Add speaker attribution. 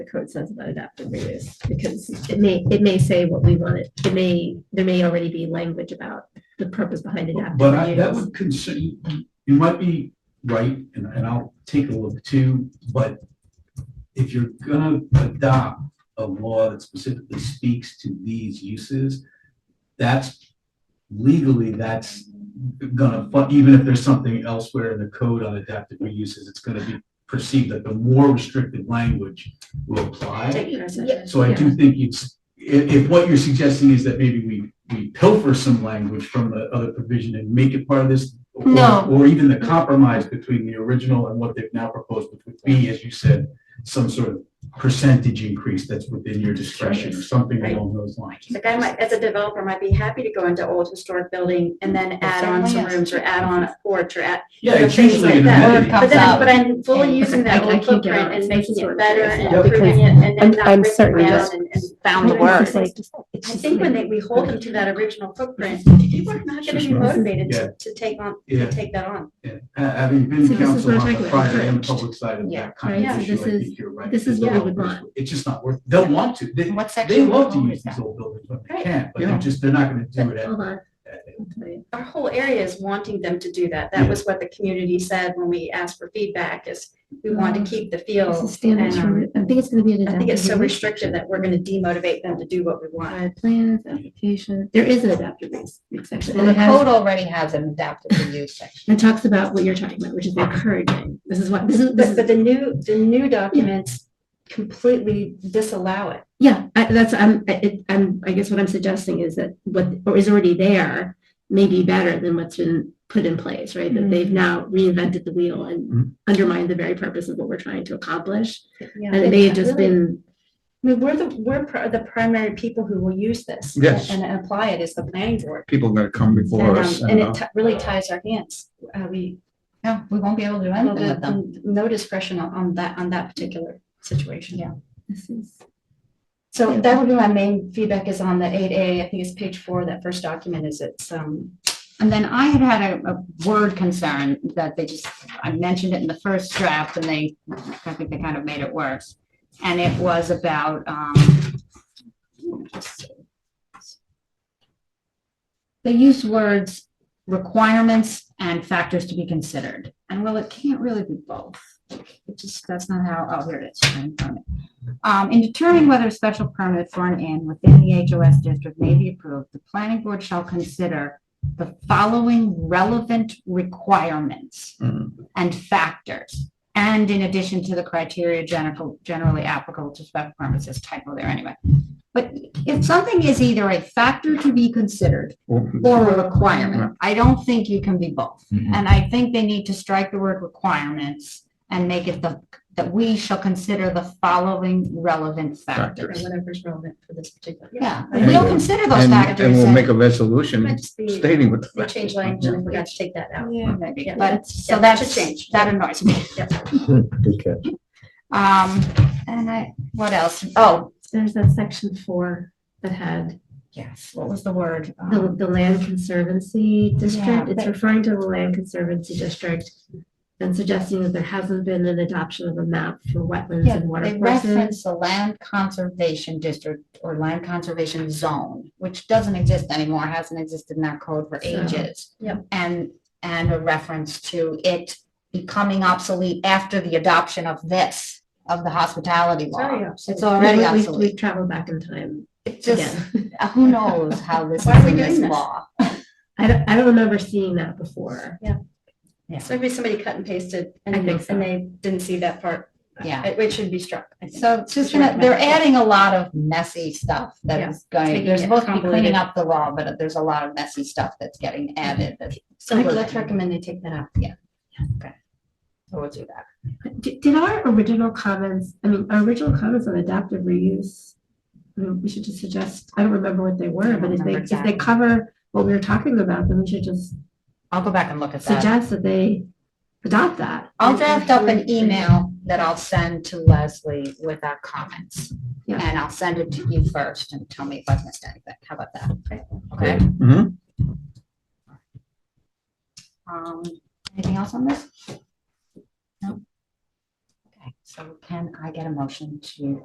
Speaker 1: the code says about adaptive reuse, because it may, it may say what we want it, it may, there may already be language about the purpose behind adaptive
Speaker 2: But I, that
Speaker 1: reuse.
Speaker 2: would concern, you might be right, and, and I'll take a look too, but if you're gonna adopt a law that specifically speaks to these uses, that's legally, that's gonna, fu- even if there's something elsewhere in the code on adaptive reuses, it's gonna be perceived that the more restrictive language will apply.
Speaker 1: Yeah.
Speaker 2: So I do think it's, if, if what you're suggesting is that maybe we, we pilfer some language from the other provision and make it part of this. or-
Speaker 1: No.
Speaker 2: Or even the compromise between the original and what they've now proposed, which would be, as you said, some sort of percentage increase that's within your discretion or something
Speaker 3: Right.
Speaker 2: along those lines.
Speaker 3: Like I might, as a developer, might be happy to go into old historic building and then add on some rooms or add on a porch or add.
Speaker 2: Yeah, it's
Speaker 3: things
Speaker 2: usually
Speaker 3: like
Speaker 2: an
Speaker 3: that.
Speaker 2: amenity.
Speaker 3: But then,
Speaker 4: out.
Speaker 3: but I'm fully using that
Speaker 1: I- I
Speaker 3: old
Speaker 1: can't get on
Speaker 3: footprint
Speaker 1: it.
Speaker 3: and making
Speaker 1: It's
Speaker 3: it better and
Speaker 2: Yeah,
Speaker 3: improving it and
Speaker 5: I'm-
Speaker 3: then not
Speaker 5: I'm
Speaker 3: breaking
Speaker 5: certain
Speaker 3: it
Speaker 5: that's-
Speaker 3: down and, and found the
Speaker 5: It's
Speaker 3: word.
Speaker 5: just like- it's
Speaker 3: I
Speaker 5: just
Speaker 3: think when
Speaker 5: like-
Speaker 3: they, we hold them to that original footprint, people are not gonna be motivated
Speaker 2: Yeah.
Speaker 3: to, to take on,
Speaker 2: Yeah.
Speaker 3: to take that on.
Speaker 2: Yeah, ha- having
Speaker 1: So
Speaker 2: been
Speaker 1: this is
Speaker 2: counsel
Speaker 1: what
Speaker 2: on
Speaker 1: I'm
Speaker 2: the
Speaker 1: talking about,
Speaker 2: private and
Speaker 1: encouraged.
Speaker 2: public side of
Speaker 4: Yeah.
Speaker 2: that kind
Speaker 1: Right,
Speaker 2: of
Speaker 1: so
Speaker 2: issue, I
Speaker 1: this is-
Speaker 2: think you're right.
Speaker 1: this is
Speaker 2: The
Speaker 1: what we would
Speaker 2: developers-
Speaker 1: want.
Speaker 2: It's just not worth, they'll want to, they,
Speaker 4: What
Speaker 2: they
Speaker 4: section?
Speaker 2: love to
Speaker 4: of the
Speaker 2: use
Speaker 4: law
Speaker 2: these
Speaker 4: is
Speaker 2: old buildings when they
Speaker 3: Right.
Speaker 2: can, but
Speaker 1: Yeah.
Speaker 2: they're just, they're not gonna do it at
Speaker 1: Hold on. I'll tell you.
Speaker 3: Our whole area is wanting them to do that. That
Speaker 2: Yeah.
Speaker 3: was what the community said when we asked for feedback is we want to keep the
Speaker 1: This is
Speaker 3: feel.
Speaker 1: standards
Speaker 3: and, um,
Speaker 1: for- I think it's gonna be an
Speaker 3: I think it's so
Speaker 1: adaptive reuse.
Speaker 3: restrictive that we're gonna demotivate them to do what we want.
Speaker 1: Uh, Plans, application, there is an adaptive reuse section. and
Speaker 4: Well, the
Speaker 1: it has-
Speaker 4: code already has an adaptive reuse section.
Speaker 1: It talks about what you're talking about, which is encouraging. This is what, this is, this
Speaker 3: But, but
Speaker 1: is,
Speaker 3: the new, the new documents completely disallow it.
Speaker 1: yeah, I, that's, I'm, I- it, I'm, I guess what I'm suggesting is that what, or is already there may be better than what's been put in place, right? That they've now reinvented the wheel
Speaker 2: Mhm.
Speaker 1: and undermined the very purpose of what we're trying to accomplish. And it may have just
Speaker 3: Really,
Speaker 1: been,
Speaker 3: I mean, we're the, we're pr- the primary people who will use this.
Speaker 6: Yes.
Speaker 3: And and apply it is the planning board.
Speaker 6: people are gonna come before
Speaker 3: And, um,
Speaker 6: us.
Speaker 3: and
Speaker 6: uh,
Speaker 3: it ti- really ties our hands. Uh, we,
Speaker 4: No, we won't be able to do
Speaker 3: well,
Speaker 4: anything with them.
Speaker 3: the- no discretion on, on that, on that particular situation.
Speaker 4: Yeah.
Speaker 1: this is,
Speaker 3: So that would be my main feedback is on the eight A, I think it's page four, that first document is it's, um,
Speaker 4: And then I had had a, a word concern that they just, I mentioned it in the first draft and they, I think they kind of made it worse. And it was about, um, they used words requirements and factors to be considered. And well, it can't really be both. It just, that's not how, oh, here it is. right in front of me. Um, in determining whether a special permit for an inn within the HOS district may be approved, the planning board shall consider the following relevant requirements
Speaker 6: mm,
Speaker 4: and factors. And in addition to the criteria general, generally applicable to special permits, this typo there anyway. But if something is either a factor to be considered
Speaker 6: well,
Speaker 4: or a
Speaker 6: Mm-hmm.
Speaker 4: requirement, I don't think you can be both.
Speaker 6: Mhm.
Speaker 4: And I think they need to strike the word requirements and make it the, that we shall consider the following relevant
Speaker 3: or
Speaker 4: factors.
Speaker 3: whatever's relevant for this particular.
Speaker 4: Yeah,
Speaker 3: And-
Speaker 4: and we'll consider those
Speaker 6: And,
Speaker 4: factors.
Speaker 6: and we'll
Speaker 4: and-
Speaker 6: make a resolution
Speaker 3: Might just be-
Speaker 6: stating what. the
Speaker 3: They
Speaker 6: factors
Speaker 3: change
Speaker 6: are.
Speaker 3: language and we got to take that out.
Speaker 4: or maybe,
Speaker 3: Yeah,
Speaker 4: but,
Speaker 3: that's-
Speaker 4: so
Speaker 3: yeah,
Speaker 4: that's,
Speaker 3: should change.
Speaker 4: that annoys me.
Speaker 6: Okay.
Speaker 4: Um, and I, what else? Oh,
Speaker 1: there's that section four that had
Speaker 4: yes, what was the word?
Speaker 1: the,
Speaker 4: Um,
Speaker 1: the land conservancy
Speaker 4: Yeah,
Speaker 1: district. It's
Speaker 4: but-
Speaker 1: referring to the land conservancy district and suggesting that there hasn't been an adoption of a map for wetlands
Speaker 4: Yeah,
Speaker 1: and water
Speaker 4: they
Speaker 1: courses.
Speaker 4: referenced the land conservation district or land conservation zone, which doesn't exist anymore, hasn't existed in our code for
Speaker 1: So,
Speaker 4: ages.
Speaker 3: yep.
Speaker 4: And, and a reference to it becoming obsolete after the adoption of this, of the hospitality
Speaker 3: Oh,
Speaker 4: law. It's already
Speaker 1: We- we-
Speaker 4: obsolete.
Speaker 1: We've traveled back in time
Speaker 4: It just,
Speaker 1: again.
Speaker 4: who knows how this
Speaker 3: Why are
Speaker 4: is
Speaker 3: we
Speaker 4: in this
Speaker 3: doing this?
Speaker 4: law?
Speaker 1: I don't, I don't remember seeing that before.
Speaker 3: So maybe somebody cut and pasted and
Speaker 1: I think so.
Speaker 3: and they didn't see that part.
Speaker 4: Yeah.
Speaker 3: It it should be struck. I think.
Speaker 4: So it's just gonna, they're adding a lot of messy stuff that is going,
Speaker 3: making
Speaker 4: they're
Speaker 3: it
Speaker 4: supposed to be cleaning
Speaker 3: convoluted.
Speaker 4: up the law, but there's a lot of messy stuff that's getting added. that's-
Speaker 3: So let's recommend they take that out.
Speaker 4: So we'll do that.
Speaker 1: Did, did our original comments, I mean, our original comments on adaptive reuse, I mean, we should just suggest, I don't remember what they were, but if they,
Speaker 4: Remember
Speaker 1: if they
Speaker 4: that.
Speaker 1: cover what we were talking about, then we should just
Speaker 4: I'll go back and look at that.
Speaker 1: suggest that they adopt that.
Speaker 4: I'll draft up an email that I'll send to Leslie with our comments.
Speaker 1: Yeah.
Speaker 4: And I'll send it to you first and tell me if I've missed anything. How about that? Okay.
Speaker 6: Mhm.
Speaker 4: Um, anything else on this? No? Okay, so can I get a motion to